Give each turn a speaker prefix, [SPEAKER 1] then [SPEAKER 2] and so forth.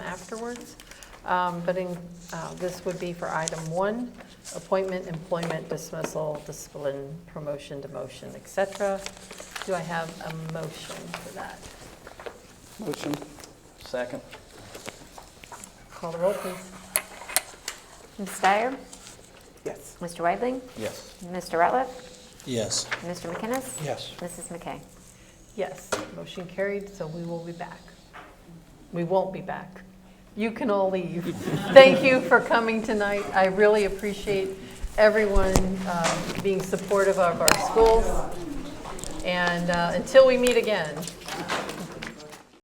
[SPEAKER 1] afterwards. Um, But in, uh, this would be for item one, appointment, employment, dismissal, discipline, promotion, demotion, et cetera. Do I have a motion for that?
[SPEAKER 2] Motion.
[SPEAKER 3] Second.
[SPEAKER 1] Call the roll, please.
[SPEAKER 4] Ms. Dyer?
[SPEAKER 2] Yes.
[SPEAKER 4] Mr. Weidling?
[SPEAKER 3] Yes.
[SPEAKER 4] Mr. Ratliff?
[SPEAKER 5] Yes.
[SPEAKER 4] Mr. McInnes?
[SPEAKER 5] Yes.
[SPEAKER 4] Mrs. McKay?
[SPEAKER 1] Yes, motion carried, so we will be back. We won't be back. You can all leave. Thank you for coming tonight. I really appreciate everyone um, being supportive of our schools. And uh, until we meet again,